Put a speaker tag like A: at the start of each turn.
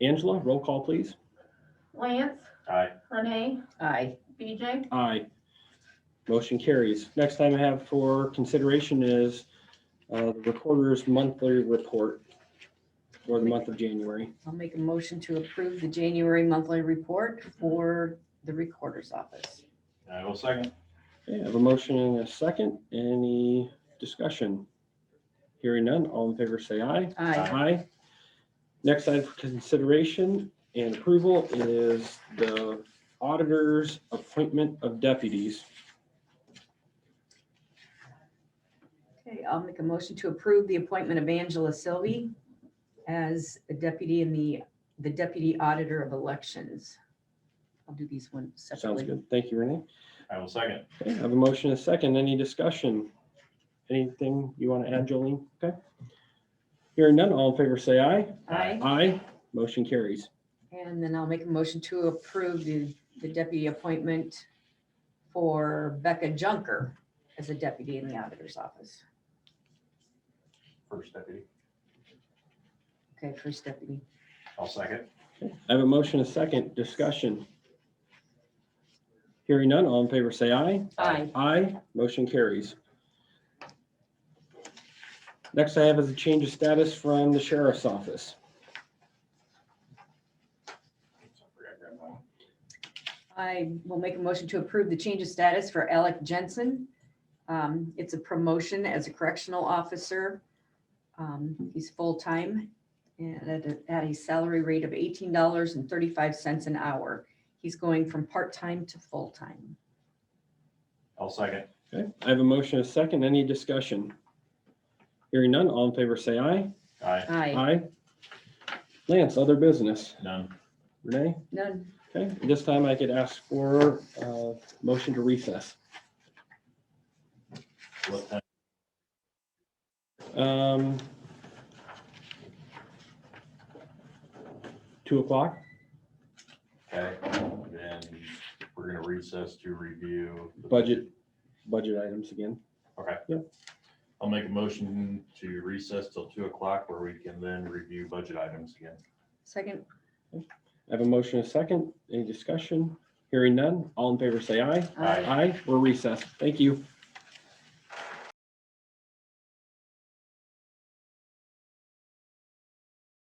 A: Angela, roll call, please.
B: Lance,
C: Aye.
B: Renee,
D: Aye.
B: BJ,
A: Aye. Motion carries. Next item I have for consideration is uh, the recorder's monthly report for the month of January.
D: I'll make a motion to approve the January monthly report for the recorder's office.
C: I will second.
A: Okay, I have a motion and a second. Any discussion? Hearing none, all in favor say aye.
D: Aye.
A: Aye. Next item for consideration and approval is the auditor's appointment of deputies.
D: Okay, I'll make a motion to approve the appointment of Angela Sylvie as a deputy in the, the deputy auditor of elections. I'll do these one
A: Sounds
D: separately.
A: good. Thank you, Renee.
C: I will second.
A: Okay, I have a motion and a second. Any discussion? Anything you want to add, Jolene? Okay. Hearing none, all in favor say aye.
D: Aye.
A: Aye. Motion carries.
D: And then I'll make a motion to approve the, the deputy appointment for Becca Junker as a deputy in the auditor's office.
C: First deputy.
D: Okay, first deputy.
C: I'll second.
A: I have a motion and a second. Discussion. Hearing none, all in favor say aye.
D: Aye.
A: Aye, motion carries. Next I have is a change of status from the sheriff's office.
D: I will make a motion to approve the change of status for Alec Jensen. Um, It's a promotion as a correctional officer. Um, He's full-time and at a- at a salary rate of eighteen dollars and thirty-five cents an hour. He's going from part-time to full-time.
C: I'll second.
A: Okay, I have a motion and a second. Any discussion? Hearing none, all in favor say aye.
C: Aye.
D: Aye,
A: Aye. Lance, other business.
C: None.
A: Renee?
D: none.
A: Okay, this time I could ask for uh motion to recess.
C: What time?
A: Um Two o'clock?
C: Okay, then we're gonna recess to review. the
A: Budget. Budget items again.
C: Okay.
A: Yep.
C: I'll make a motion to recess till two o'clock where we can then review budget items again.
D: Second,
A: I have a motion, and a second, any discussion? Hearing none, all in favor say aye.
D: aye.
A: Aye, we're recessed. Thank you.